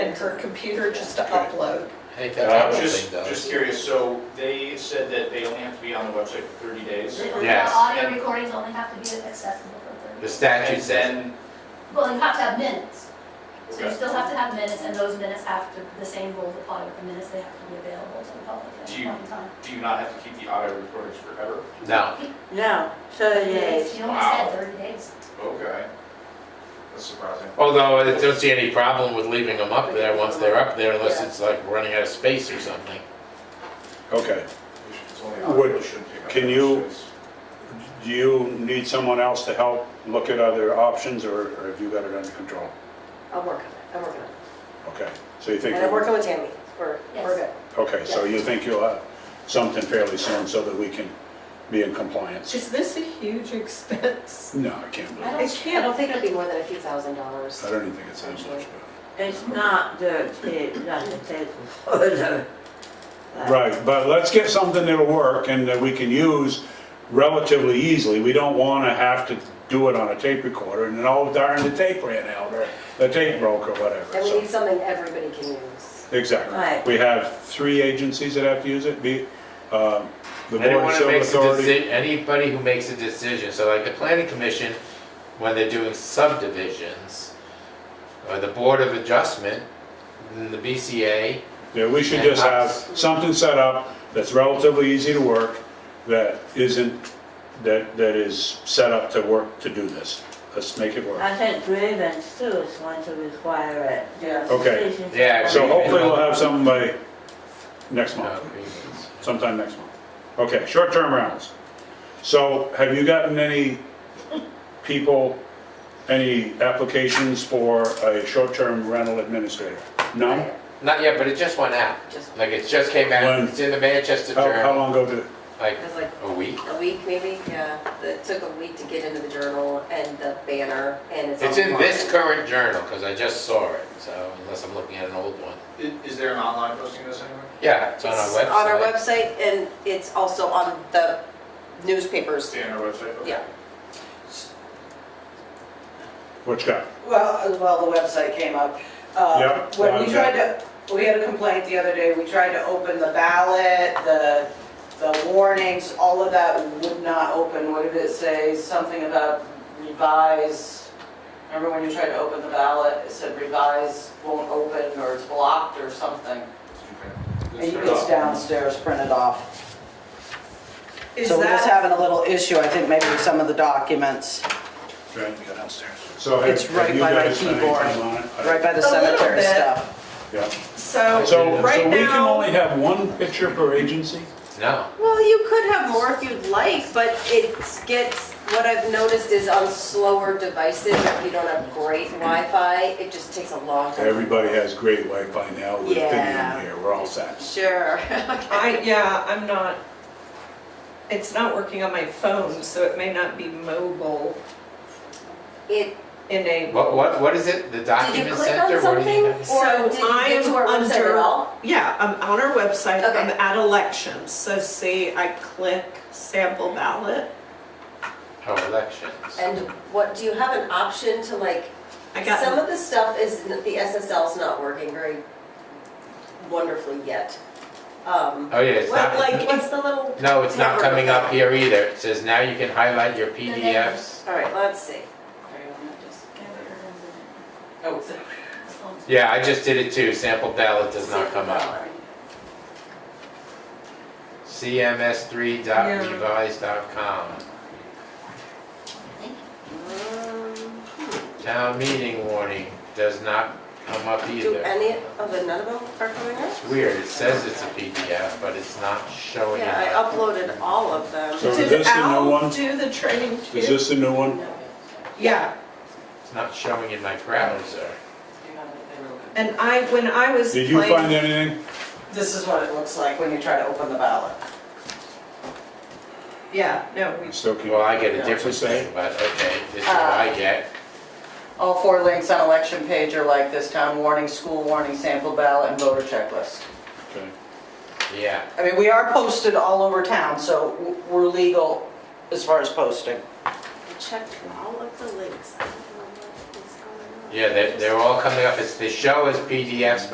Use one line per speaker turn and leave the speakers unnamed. her computer just to upload.
I think
Uh,
that's what
Just,
thing does.
just curious, so they said that they only have to be on the website for 30 days?
The- The
Yes.
audio recordings only have to be accessible for
The
30.
statute says,
And
Well, you have to have minutes. So you
Okay.
still have to have minutes, and those minutes have to, the same rules apply with the minutes, they have to be available to the public at
Do
any
you-
point in time.
then, do you not have to keep the audio recordings forever?
no,
No, so
Yes,
days.
You only
Wow.
said 30 days.
Okay. That's surprising.
although I don't see any problem with leaving them up there once they're up there unless it's like running out of space or something.
Okay.
We should- It's only audio,
Would-
it shouldn't take up
can
much
you-
space.
Do you need someone else to help look at other options, or or have you got it under control?
I'm working on it, I'm working on it.
Okay, so you think,
And I'm
you'll-
working with Tammy, we're, we're good.
Yes.
okay, so you think you'll have something fairly soon so that we can be in compliance?
Is this a huge expense?
No, I can't believe
I
it.
don't, I don't think it'll be more than a few thousand dollars.
I don't even think it's that much. but-
It's not the, the, not the table.
Uh,
Right, but let's get something that'll work and that we can use relatively easily. We don't want to have to do it on a tape recorder and then, oh darn, the tape ran out, or the tape broke or whatever.
And we
so-
need something everybody can use.
Right.
Exactly. We have three agencies that have to use it, be, um, the Board
Anyone
of
who
Civil
makes a
Authority.
deci, anybody who makes a decision, so like the planning commission, when they're doing subdivisions, or the board of adjustment, and the BCA,
Yeah, we should just have something set up that's relatively easy to work, that isn't, that, that is set up to work, to do this. Let's make it work.
I think grievance too is going to require it.
Yeah.
Okay.
Decisions-
Yeah,
So hopefully we'll have something by next
no,
month,
grievance.
sometime next month. Okay, short-term rentals. So have you gotten any people, any applications for a short-term rental administrator? None?
Not yet, but it just went out.
Just-
Like, it just came out,
When?
it's in the Manchester
How, how
Journal,
long ago did,
like,
It was like
a week.
a week maybe, yeah. It took a week to get into the journal and the banner and it's.
It's in
online.
this current journal, because I just saw it, so, unless I'm looking at an old one.
I- Is there an online posting of this anywhere?
Yeah, it's on our
It's
website.
on our website and it's also on the newspapers.
See on our website? Okay.
Yeah.
what you got?
Well, uh, well, the website came up. Uh,
Yep,
When we
okay.
tried to, we had a complaint the other day, we tried to open the ballot, the, the warnings, all of that would not open. What did it say? Something about revise. Remember when you tried to open the ballot, it said revise won't open or it's blocked or
Did
something.
you
And
print-
It's
Just print it off.
downstairs printed off.
Is
So we're just
that,
having a little issue, I think, maybe with some of the documents,
Right, go downstairs. So have
It's right
have you
by my
guys spent any
keyboard.
time on it? I-
right by the
A little
cemetery
bit.
stuff.
Yeah.
so,
So, so we
right
can
now,
only have one picture per agency?
No.
Well, you could have more if you'd like, but it gets, what I've noticed is on slower devices, if you don't have great Wi-Fi, it just takes a long time.
Everybody has great Wi-Fi now with Fidium
Yeah.
here, we're all set.
Sure.
I, yeah, I'm not, it's not working on my phone, so it may not be mobile
It,
enabled.
What, what, what is it? The
did you
document
click on
center? What do
something?
you
Or
have?
So
did you
I
get to
am
our website at
under-
all?
Yeah, I'm on our website, I'm
Okay.
at elections, so see, I click sample ballot.
Oh, elections.
And what, do you have an option to like,
I
some
got,
of the stuff is, the SSL's not working very wonderfully yet. Um,
Oh, yeah, it's
what-
not,
like, what's the little,
no, it's not coming up here either. It says now you can highlight your PDFs.
all right, let's see.
Oh,
Yeah, I just did it too. Sample ballot does not come up. CMS3.revise.com.
Mm.
Town meeting warning does not come up
Do
either.
any of the none of them are coming up?
It's weird. It says it's a PDF, but it's not showing
Yeah, I
up.
uploaded all of them.
So is this
did
the new
Al
one?
do the training too?
Is this the new one?
Yeah,
It's not showing in my browser.
And I, when I was
Did you find
playing,
anything?
This is what it looks like when you try to open the ballot.
yeah, no, we,
Still can't.
Well, I get a
Yeah,
different
it's the same.
thing, but okay, this is what I get.
All four links on election page are like this, town warning, school warning, sample ballot, and voter checklist.
Okay.
Yeah.
I mean, we are posted all over town, so w- we're legal as far as posting.
I checked all of the links. I don't know what's going on.
Yeah, they're, they're all coming up, it's, they show as PDFs,